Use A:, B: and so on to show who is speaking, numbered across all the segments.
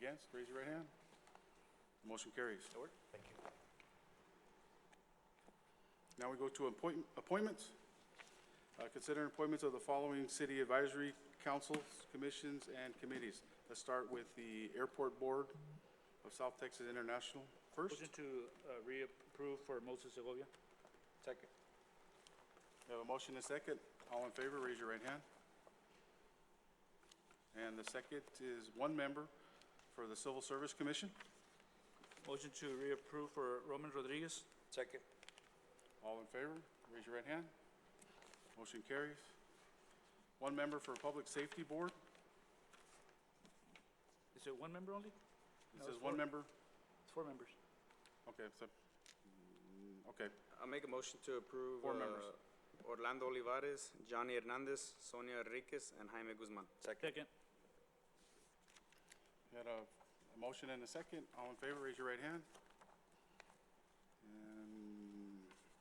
A: Against, raise your right hand. Motion carries.
B: Thank you.
A: Now we go to appoint- appointments. Uh, Consider appointments of the following city advisory councils, commissions, and committees. Let's start with the Airport Board of South Texas International first.
C: Motion to uh, reapprove for Moses Segovia.
B: Second.
A: We have a motion and a second. All in favor, raise your right hand. And the second is one member for the Civil Service Commission.
C: Motion to reapprove for Roman Rodriguez.
B: Second.
A: All in favor, raise your right hand. Motion carries. One member for Public Safety Board.
C: Is it one member only?
A: It
C: No,
A: says
C: it's
A: one
C: four.
A: member.
C: It's four members.
A: Okay, so, mm, okay.
D: I'll make a motion to approve.
A: Four members.
D: uh, Orlando Olivares, Johnny Hernandez, Sonia Enriquez, and Jaime Guzman.
B: Second.
C: Second.
A: Got a a motion and a second. All in favor, raise your right hand.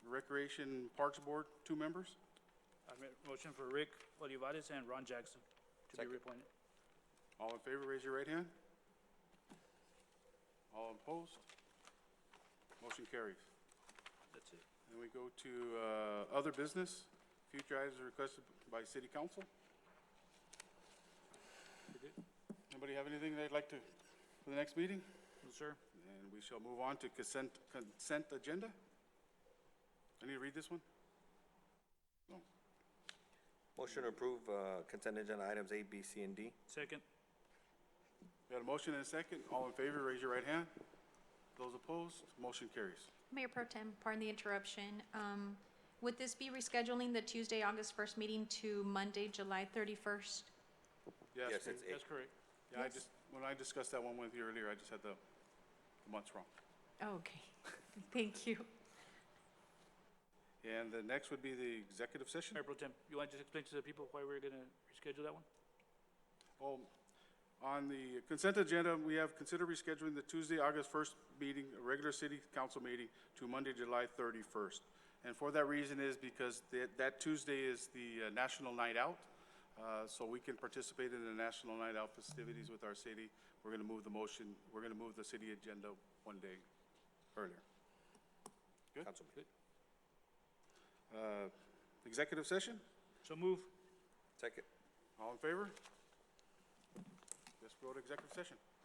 A: And Recreation Parks Board, two members.
C: I make motion for Rick Olivares and Ron Jackson to be
B: Second.
C: reappointed.
A: All in favor, raise your right hand. All opposed? Motion carries.
C: That's it.
A: And we go to uh, other business. Future items requested by city council.
C: We good?
A: Anybody have anything they'd like to, for the next meeting?
C: No, sir.
A: And we shall move on to consent, consent agenda. I need to read this one? No.
B: Motion to approve uh, consent agenda items A, B, C, and D.
C: Second.
A: Got a motion and a second. All in favor, raise your right hand. Those opposed, motion carries.
E: Mayor Pro Tem, pardon the interruption. Um, Would this be rescheduling the Tuesday, August 1st meeting to Monday, July 31st?
B: Yes, it's
C: That's correct.
A: Yeah, I just, when I discussed that one with you earlier, I just had the the months wrong.
E: Oh, Okay, thank you.
A: And the next would be the executive session.
C: Mayor Pro Tem, you want to just explain to the people why we're gonna reschedule that one?
A: Well, on the consent agenda, we have consider rescheduling the Tuesday, August 1st meeting, a regular city council meeting, to Monday, July 31st. And for that reason is because that that Tuesday is the uh, National Night Out, uh, so we can participate in the National Night Out festivities with our city. We're going to move the motion, we're going to move the city agenda one day earlier.
B: Councilman.
A: Uh, Executive session?
C: So move.
B: Second.
A: All in favor? Let's go to executive session.